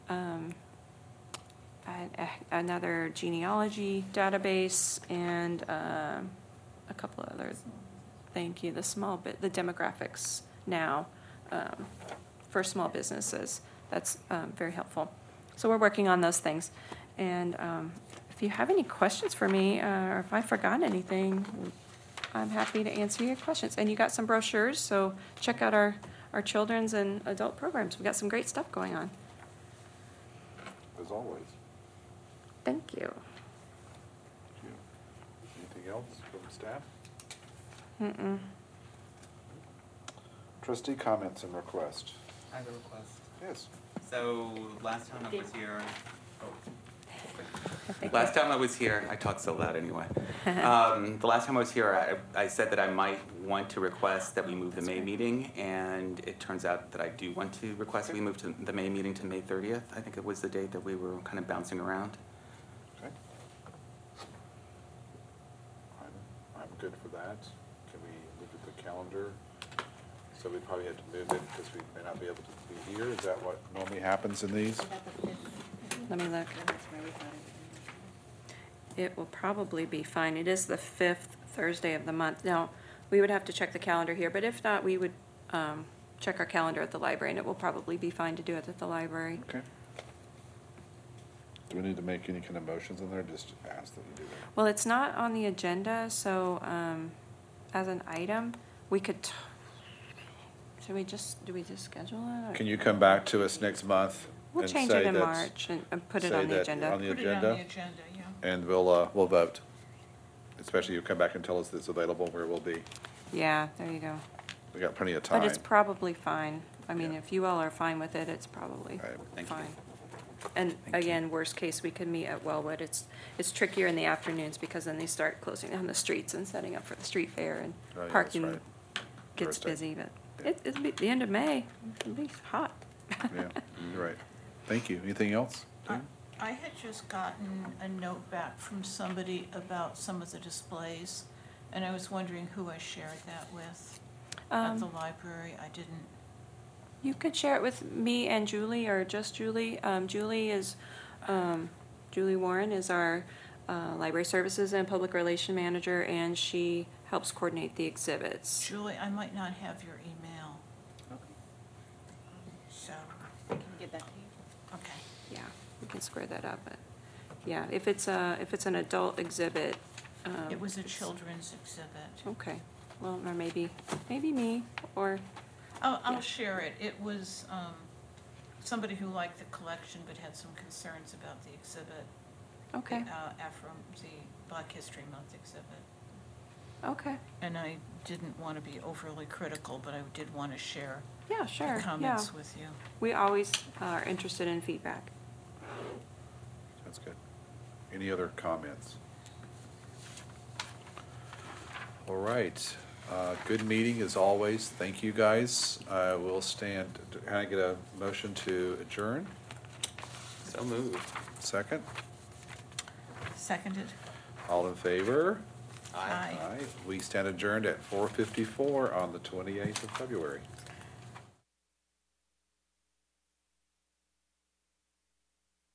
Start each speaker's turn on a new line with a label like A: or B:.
A: um, an- a- another genealogy database, and um, a couple of other, thank you, the small bit, the demographics now um, for small businesses. That's um, very helpful. So we're working on those things. And um, if you have any questions for me, uh, or if I've forgotten anything, I'm happy to answer your questions. And you got some brochures, so check out our, our children's and adult programs. We've got some great stuff going on.
B: as always.
A: Thank you.
B: Thank you. Anything else from staff?
A: Mm-mm.
B: Trustee comments and request.
C: I have a request.
B: Yes.
C: So last time I was here,
A: I think-
C: last time I was here, I talked so loud anyway. Um, The last time I was here, I, I said that I might want to request that we move the May meeting, and it turns out that I do want to request that we move to the May meeting to May 30th. I think it was the date that we were kind of bouncing around.
B: Okay. I'm, I'm good for that. Can we look at the calendar? So we probably had to move it because we may not be able to be here. Is that what normally happens in these?
A: Let me look. It will probably be fine. It is the fifth Thursday of the month. Now, we would have to check the calendar here, but if not, we would um, check our calendar at the library, and it will probably be fine to do it at the library.
B: Okay. Do we need to make any kind of motions in there? Just ask that you do that.
A: Well, it's not on the agenda, so um, as an item, we could, t- should we just, do we just schedule it? or-
B: Can you come back to us next month?
A: We'll
B: and
A: change it
B: say
A: in
B: that's-
A: March and and put it
B: say
A: on the
B: that
A: agenda.
B: on the
D: Put it on the
B: agenda?
D: agenda, yeah.
B: And we'll, uh, we'll vote. Especially you come back and tell us it's available where we'll be.
A: Yeah, there you go.
B: We got plenty of time.
A: But it's probably fine. I mean,
B: Yeah.
A: if you all are fine with it, it's probably
B: All right.
C: Thank you.
A: fine. And
C: Thank you.
A: again, worst case, we could meet at Wellwood. It's, it's trickier in the afternoons because then they start closing down the streets and setting up for the street fair
B: Oh, yeah,
A: and
B: that's
A: parking
B: right.
A: gets
B: Thursday.
A: busy, but
B: Yeah.
A: it, it'll be the end of May. It'll be hot.
B: Yeah, you're right. Thank you. Anything else?
A: Uh.
D: I- I had just gotten a note back from somebody about some of the displays, and I was wondering who I shared that with at the
A: Um,
D: library. I didn't.
A: You could share it with me and Julie, or just Julie. Um, Julie is, um, Julie Warren is our uh, Library Services and Public Relation Manager, and she helps coordinate the exhibits.
D: Julie, I might not have your email, so, okay.
A: Yeah, we can square that up, but, yeah, if it's a, if it's an adult exhibit. um,
D: It was a
A: it's- Oh,
D: children's exhibit.
A: Okay, well, or maybe, maybe me, or,
D: I'll,
A: yeah.
D: I'll share it. It was um, somebody who liked the collection but had some concerns about the exhibit. the,
A: okay,
D: uh, Afro, the Black History Month exhibit.
A: okay,
D: And I didn't want to be overly critical, but I did want to share
A: yeah,
D: the
A: sure, yeah.
D: comments with you.
A: We always are interested in feedback.
B: That's good. Any other comments? All right. Uh, Good meeting as always. Thank you, guys. Uh, We'll stand, can I get a motion to adjourn?
C: So moved.
B: Second?
D: Seconded?
B: All in favor?
D: Aye.
B: We stand adjourned at 4:54 on the 28th of February.